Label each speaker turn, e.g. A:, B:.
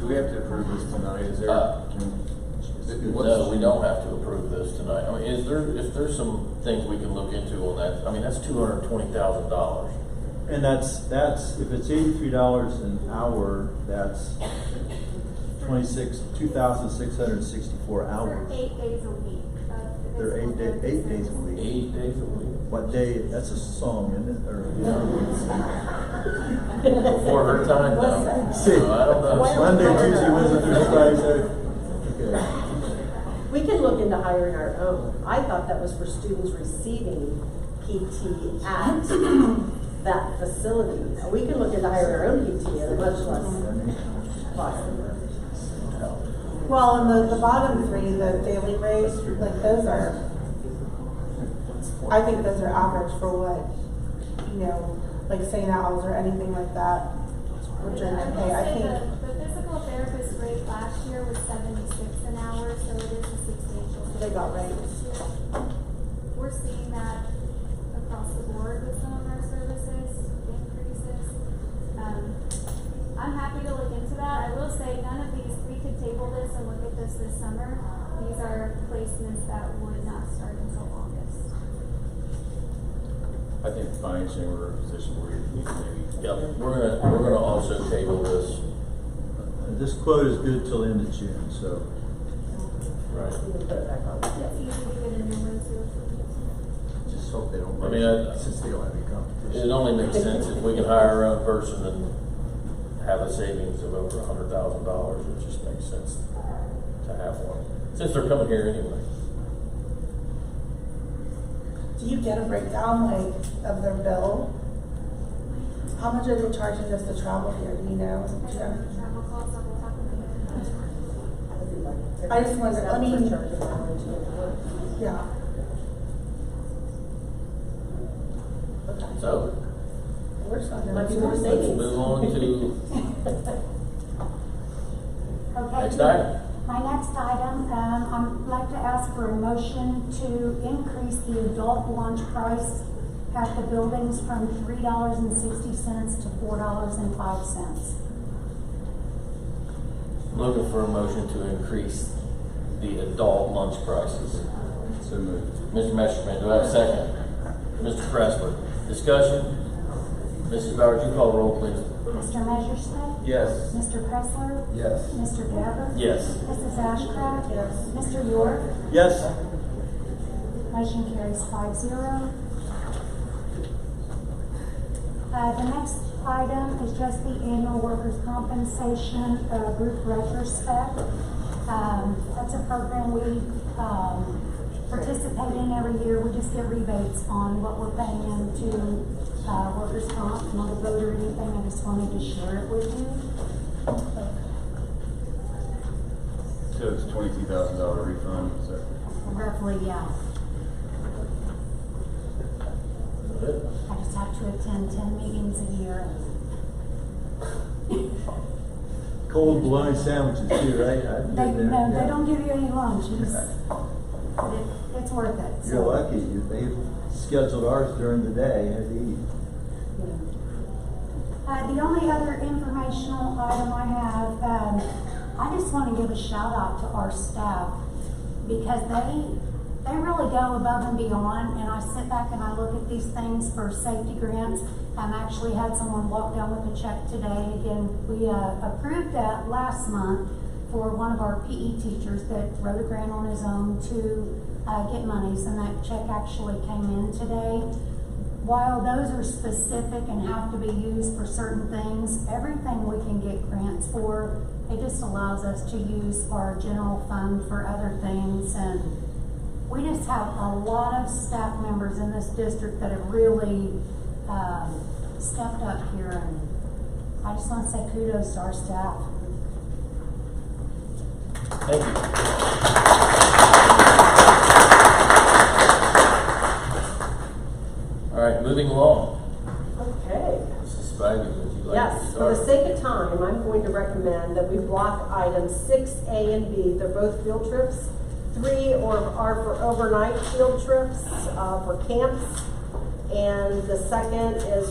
A: Do we have to approve this tonight, is there?
B: Uh,
A: can-
B: No, we don't have to approve this tonight. I mean, is there, if there's some things we can look into on that, I mean, that's two hundred and twenty thousand dollars.
C: And that's, that's, if it's eighty-three dollars an hour, that's twenty-six, two thousand six hundred and sixty-four
D: They're
C: hours.
D: eight days a week. uh,
C: They're eight day, eight days a week.
B: Eight days a week.
C: What day, that's a song, isn't it, or?
B: Before her time, though.
C: See,
B: So I don't know.
C: Monday, Tuesday, Wednesday, Thursday, Friday, Saturday. Okay.
E: We can look into hiring our own. I thought that was for students receiving PT at that facility. We can look into hiring our own PT at a much less cost.
F: Well, and the, the bottom three, the daily rates, like those are, I think those are average for what, you know, like St. Al's or anything like that,
D: I
F: which are,
D: will
F: okay, I
D: say
F: think.
D: the, the physical therapist rate last year was seventy-six an hour, so it is a substantial.
F: They got
D: increase this
F: raised.
D: year. We're seeing that across the board with some of our services increases. Um, I'm happy to look into that. I will say, none of these, we could table this and look at this this summer. These are placements that would not start until August.
A: I think financially, we're in a position where we can maybe.
B: Yep, we're gonna, we're gonna also table this. uh,
C: This quote is good till end of June, so.
B: Right.
E: We can put it back on.
D: It's easy to get a new one too. if we need to.
C: Just hope they don't
B: I
C: raise
B: mean, I-
C: it, since they don't have any
B: It
C: competition.
B: only makes sense if we can hire our own person and have a savings of over a hundred thousand dollars, it just makes sense to have one, since they're coming here anyway.
F: Do you get a breakdown, like, of their bill? How much are they charging just to travel here, do you know?
D: I don't know, travel costs off the top of my head.
F: I just wonder, I
E: mean.
F: mean- Yeah. Okay.
B: So,
F: We're just not doing
E: Might be
F: it.
E: more
B: let's
E: savings.
B: move on to
G: Okay.
B: next item.
G: My next item, um, I'd like to ask for a motion to increase the adult lunch price at the buildings from three dollars and sixty cents to four dollars and five cents.
B: Looking for a motion to increase the adult lunch prices.
A: So moved.
B: Mr. Messerschmidt, do I have a second? Mr. Pressler, discussion? Mrs. Bowers, you call the roll, please.
G: Mr. Messerschmidt?
A: Yes.
G: Mr. Pressler?
A: Yes.
G: Mr. Gabbard?
B: Yes.
G: Mrs. Ashcraft?
F: Yes.
G: Mr. York?
C: Yes?
G: Motion carries five zero. Uh, the next item is just the annual workers' compensation, uh, group retrospect. Um, that's a program we, um, participate in every year. We just get rebates on what we're paying into, uh, workers' comp, not a vote or anything. I just wanted to share it with you.
A: So it's twenty-two thousand dollar refund, is that?
G: Roughly, yeah. I just have to attend ten meetings a year
C: Cold bologna sandwiches too, right? I've
G: They,
C: been there.
G: no, they
C: Yeah.
G: don't give you any lunch, you just, it- it's worth it. so,
C: You're lucky, you- they scheduled ours during the day, had to eat.
G: you know. Uh, the only other informational item I have, um, I just wanna give a shout out to our staff because they, they really go above and beyond and I sit back and I look at these things for safety grants. I've actually had someone walk down with a check today and again, we, uh, approved that last month. for one of our PE teachers that wrote a grant on his own to uh, get monies, and that check actually came in today. While those are specific and have to be used for certain things, everything we can get grants for, it just allows us to use our general fund for other things, and we just have a lot of staff members in this district that have really um, stepped up here, and I just want to say kudos to our staff.
B: Thank you. All right, moving along.
E: Okay.
B: Mrs. Spivey, would you like to
E: Yes, for
B: start?
E: the sake of time, I'm going to recommend that we block items six A and B, they're both field trips. Three or are for overnight field trips, uh, for camps. And the second is